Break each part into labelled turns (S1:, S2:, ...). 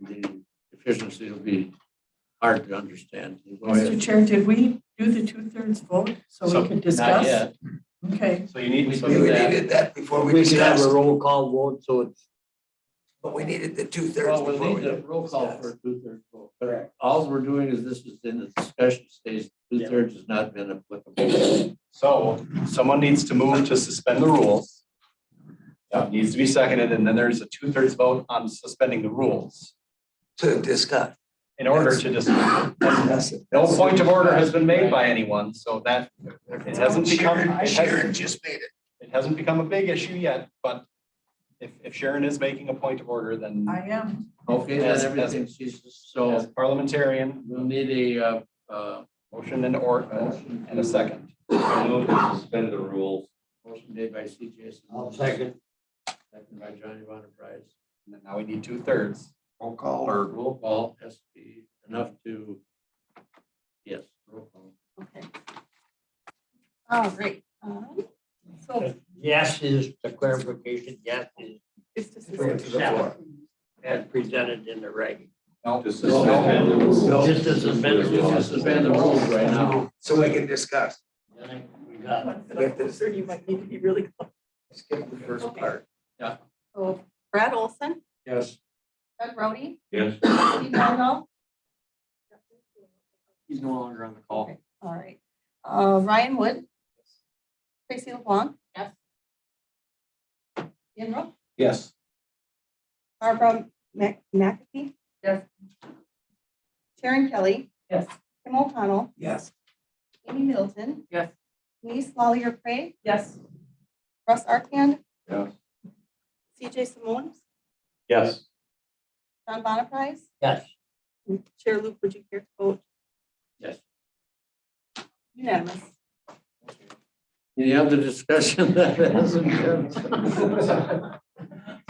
S1: the efficiency will be hard to understand.
S2: Mr. Chair, did we do the two-thirds vote so we
S3: So-
S2: could
S3: Not
S2: discuss?
S3: yet.
S2: Okay,
S3: So you need, so
S4: We
S3: that,
S4: needed that before we
S1: We can have a
S4: discussed,
S1: roll call vote, so it's.
S4: but we needed the two thirds
S1: Well,
S4: before
S1: we'll
S4: we
S1: need a
S4: did.
S1: roll call for a two-thirds vote. But all we're doing is this is in the discussion stage, two-thirds has not been applicable.
S3: so someone needs to move to suspend the rules. That needs to be seconded, and then there's a two-thirds vote on suspending the rules
S4: To discuss.
S3: in order to just, no
S4: That's it.
S3: point of order has been made by anyone, so that, it hasn't become,
S4: Sharon-
S3: it
S4: Sharon
S3: hasn't,
S4: just made it.
S3: it hasn't become a big issue yet, but if, if Sharon is making a point of order, then
S2: I am.
S1: Okay,
S3: Yes,
S1: then
S3: yes.
S1: everything ceases,
S3: as
S1: so
S3: parliamentarian,
S1: we'll need a, uh, uh.
S3: motion and or, uh,
S1: motion
S3: and a
S1: to-
S3: second.
S5: I move to suspend the rules.
S1: Motion made by CJ. Second by Johnny Von Price.
S3: And then now we need two-thirds.
S5: Roll call
S1: Our
S5: or
S1: roll call has to be enough to, yes, roll call.
S6: Okay. All right. um, So
S7: Yes is the clarification, yes is
S6: it's just.
S4: Bring it to the floor.
S7: as presented in the reg.
S3: No,
S5: to
S3: no,
S5: suspend the rules.
S7: Just to suspend the
S1: We just
S7: rules.
S1: suspend the rules right now.
S4: So we can discuss.
S7: I think we got it.
S4: With this-
S6: Sir, you might need to be really. close.
S4: Skip the first
S6: Okay.
S4: part.
S6: So Brad Olson,
S1: Yes.
S6: Doug Rowdy,
S5: Yes.
S6: Steve Downall.
S1: He's no longer on the
S6: Okay, All right. Uh, Ryan Wood. Tracy LeBlanc. Yes. Ian Rowe,
S3: yes.
S6: Barbara Mac- McAfee.
S2: Yes.
S6: Sharon Kelly,
S2: Yes.
S6: Tim O'Connell,
S4: Yes.
S6: Amy Middleton.
S2: Yes.
S6: Denise Lawlier Pray,
S2: Yes.
S6: Russ Arkand.
S5: Yes.
S6: CJ Simone,
S5: Yes.
S6: John Bonaprise.
S7: Yes.
S6: Chair Luke, would you care to vote?
S1: Yes.
S6: Unanimous.
S1: Any other discussion that hasn't been?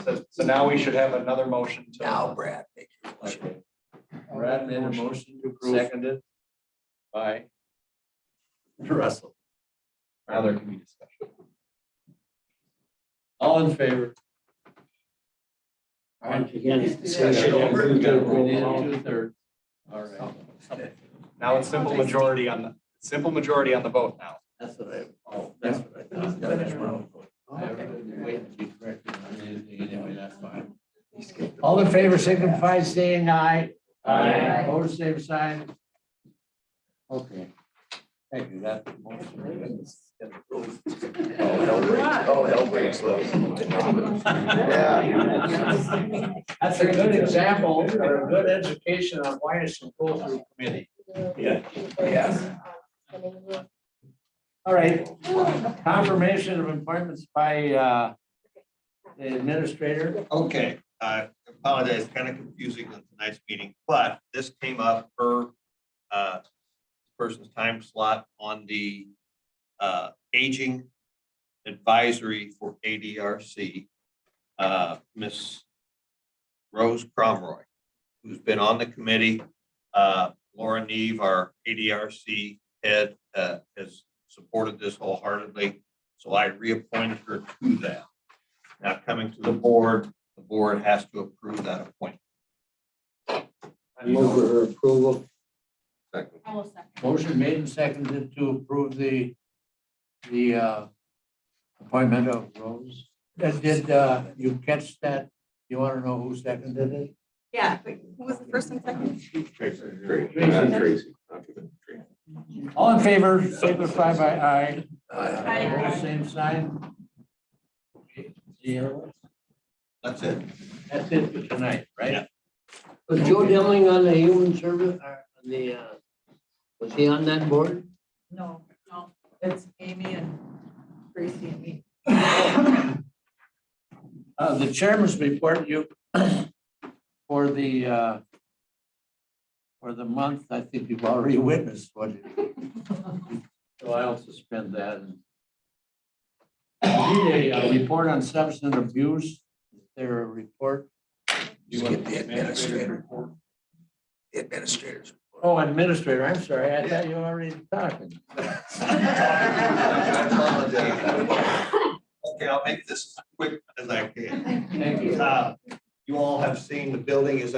S3: So, so now we should have another motion to.
S4: Now, Brad, make your motion.
S1: Brad made a motion to approve. Seconded.
S3: By,
S1: Russell.
S3: now there can be discussion.
S1: All in favor? All
S7: Once
S1: right.
S7: again, it's
S1: We
S4: Discussion
S7: discussion.
S4: over.
S1: need two-thirds. All right.
S3: Now it's simple majority on the, simple majority on the vote now.
S1: That's what I, oh, that's what I thought. That's what I thought. I
S4: Oh,
S1: haven't waited to correct it. I mean, Anyway, that's fine. All in favor, signify saying aye.
S7: Aye.
S1: Opposed, same sign. Okay. Thank you, that motion.
S4: Oh, hell breaks- Oh, hell breaks loose. Yeah.
S1: That's a good example, or a good education on why it's a pull-through committee.
S4: Yes.
S1: All right, confirmation of appointments by uh, the administrator.
S5: Okay, I apologize, kind of confusing on tonight's meeting, but this came up per uh, person's time slot on the uh, aging advisory for ADRC. Uh, Miss Rose Cromroy, who's been on the committee. Uh, Laura Neve, our ADRC head, uh, has supported this wholeheartedly, so I reappointed her to that. Now coming to the board, the board has to approve that appointment.
S7: I move for her approval.
S5: Second.
S6: I will second.
S1: Motion made and seconded to approve the, the uh, appointment of Rose. Did- Did uh, you catch that? You want to know who seconded it?
S6: Yeah, but who was the first and second?
S1: All in favor, signify by aye.
S6: Aye.
S1: Opposed, Same sign. Okay, Zero.
S5: That's it.
S1: That's it for tonight, right?
S7: Was Joe Demling on the human service, or on the, uh, was he on that board?
S2: No, no, it's Amy and Tracy and me.
S1: Uh, The chairman's report, you, for the, uh, for the month, I think you've already witnessed what it So I'll suspend that. We Need a uh, report on substance abuse. Is there a report?
S4: Skip the administrator. The administrators.
S1: Oh, administrator, I'm sorry. I thought you were already talking.
S5: Okay, I'll make this as quick as I can.
S1: Thank you.
S5: Uh, You all have seen the building is